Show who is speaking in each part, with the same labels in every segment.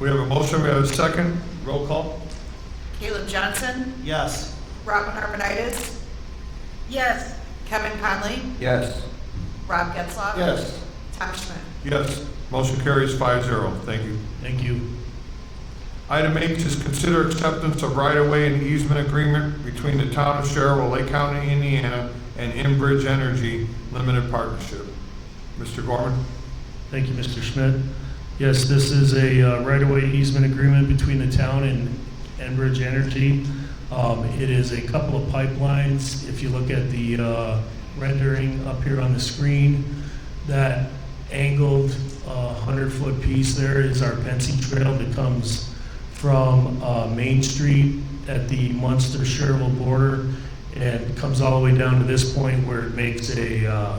Speaker 1: We have a motion, we have a second. Roll call?
Speaker 2: Caleb Johnson,
Speaker 3: Yes.
Speaker 2: Robin Arvanitis. Yes. Kevin Conley,
Speaker 4: Yes.
Speaker 2: Rob Getzloff.
Speaker 1: Yes.
Speaker 2: Tom Schmidt.
Speaker 1: Yes. Motion carries five zero. Thank you.
Speaker 3: Thank you.
Speaker 1: Item eight is consider acceptance of right-of-way and easement agreement between the town of Sherwood, Lake County, Indiana, and Enbridge Energy Limited Partnership. Mr. Gorman?
Speaker 3: Thank you, Mr. Schmidt. Yes, this is a uh, right-of-way easement agreement between the town and Enbridge Energy. Um, It is a couple of pipelines. If you look at the uh, rendering up here on the screen, that angled 100-foot piece there is our Pensy Trail that comes from uh, Main Street at the Munster-Sherwood border and comes all the way down to this point where it makes a uh,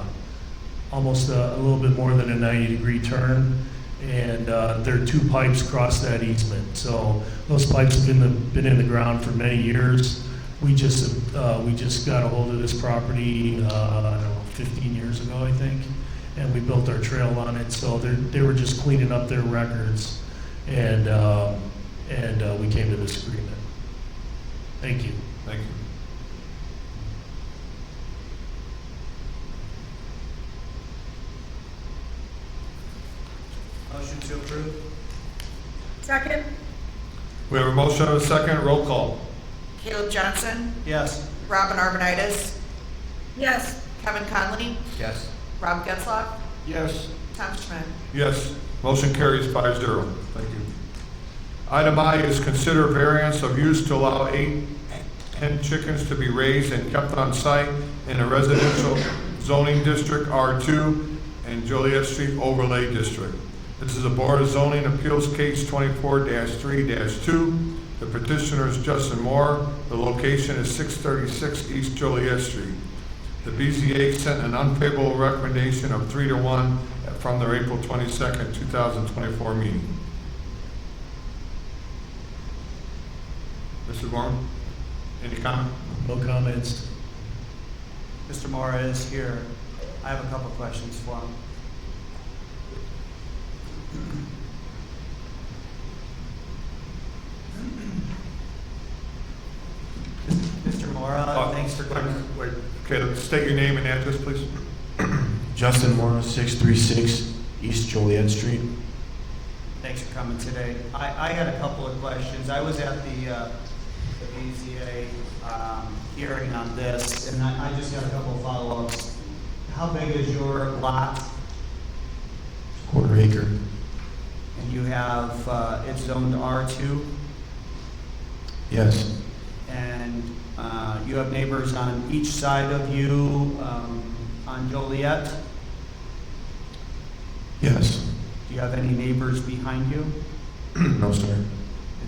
Speaker 3: almost a, a little bit more than a 90 degree turn. And uh, there are two pipes across that easement. So those pipes have been, the, been in the ground for many years. We just, uh, we just got a hold of this property, uh, I don't know, 15 years ago, I think. And we built our trail on it. So they're, they were just cleaning up their records. And, um, and uh, we came to this agreement. Thank you.
Speaker 1: Thank you.
Speaker 5: Motion to approve?
Speaker 6: Second?
Speaker 1: We have a motion, and a second. Roll call?
Speaker 2: Caleb Johnson,
Speaker 5: Yes.
Speaker 2: Robin Arvanitis,
Speaker 6: Yes.
Speaker 2: Kevin Conley,
Speaker 4: Yes.
Speaker 2: Rob Getzloff,
Speaker 1: Yes.
Speaker 2: Tom Schmidt.
Speaker 1: Yes, motion carries five zero. Thank you. Item I is consider variance of use to allow eight hen chickens to be raised and kept on site in a residential zoning district R2 and Joliet Street Overlay District. This is a Board of Zoning Appeals case 24-3-2. The petitioner is Justin Moore. The location is 636 East Joliet Street. The BZA sent an unfavorable recommendation of three to one from their April twenty-second, two thousand twenty-four meeting. Mr. Gorman, any comment?
Speaker 3: No comments.
Speaker 5: Mr. Mora is here. I have a couple questions for him. Mr. Mora,
Speaker 1: Uh,
Speaker 5: thanks for
Speaker 1: wait,
Speaker 5: coming.
Speaker 1: Wait, okay, state your name and address, please.
Speaker 7: Justin Moore, 636 East Joliet Street.
Speaker 5: Thanks for coming today. I, I had a couple of questions. I was at the, uh, the BZA, um, hearing on this, and I, I just got a couple of follow-ups. How big is your lot?
Speaker 7: Quarter acre.
Speaker 5: And you have, uh, it's zoned R2,
Speaker 7: Yes.
Speaker 5: and, uh, you have neighbors on each side of you, um, on Joliet.
Speaker 7: Yes.
Speaker 5: Do you have any neighbors behind you?
Speaker 7: No, sir.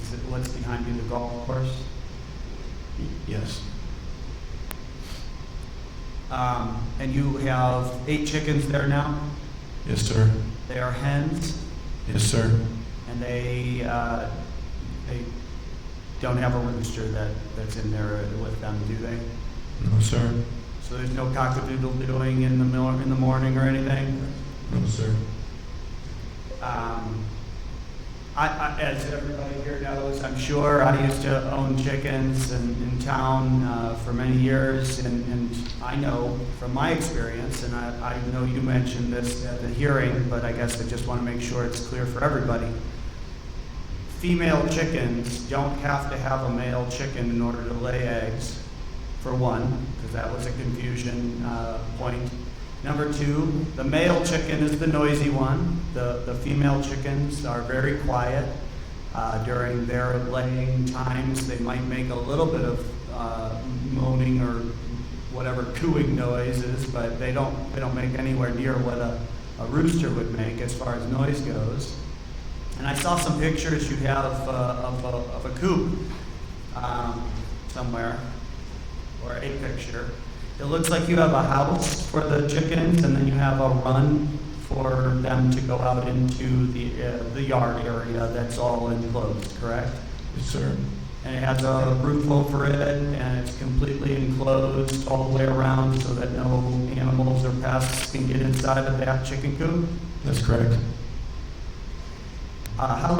Speaker 5: Is it, what's behind you, the golf course?
Speaker 7: Yes.
Speaker 5: Um, and you have eight chickens there now?
Speaker 7: Yes, sir.
Speaker 5: They are hens,
Speaker 7: Yes, sir.
Speaker 5: and they, uh, they don't have a rooster that, that's in there with them, do they?
Speaker 7: No, sir.
Speaker 5: So there's no cockadoodle doing in the mil- in the morning or anything?
Speaker 7: No, sir.
Speaker 5: Um, I, I, as everybody here knows, I'm sure, I used to own chickens in, in town uh, for many years, and, and I know from my experience, and I, I know you mentioned this at the hearing, but I guess I just want to make sure it's clear for everybody. Female chickens don't have to have a male chicken in order to lay eggs, for one, because that was a confusion uh, point. Number two, the male chicken is the noisy one. The, the female chickens are very quiet. Uh, during their laying times, they might make a little bit of uh, moaning or whatever cooing noises, but they don't, they don't make anywhere near what a, a rooster would make as far as noise goes. And I saw some pictures you have uh, of, a, of a coop um, somewhere, or a picture. It looks like you have a house for the chickens, and then you have a run for them to go out into the, uh, the yard area that's all enclosed, correct?
Speaker 7: Yes, sir.
Speaker 5: And it has a roof over it, and it's completely enclosed all the way around so that no animals or pests can get inside of that chicken coop.
Speaker 7: That's correct.
Speaker 5: Uh, How